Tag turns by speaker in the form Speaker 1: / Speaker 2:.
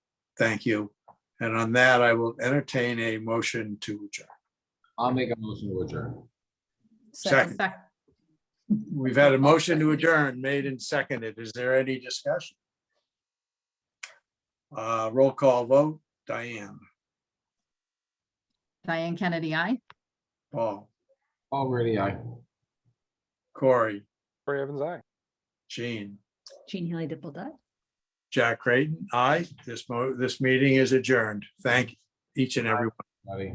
Speaker 1: Thank you. And on that, I will entertain a motion to adjourn.
Speaker 2: I'll make a motion to adjourn.
Speaker 1: Second. We've had a motion to adjourn made and seconded. Is there any discussion? Uh, roll call vote, Diane,
Speaker 3: Diane Kennedy, I.
Speaker 1: Paul,
Speaker 2: Already, I.
Speaker 1: Corey,
Speaker 4: Corey Evans, aye.
Speaker 1: Jean,
Speaker 5: Jean Haley Dipple Dye.
Speaker 1: Jack Creighton, aye. This mo, this meeting is adjourned. Thank each and every one.
Speaker 2: Buddy.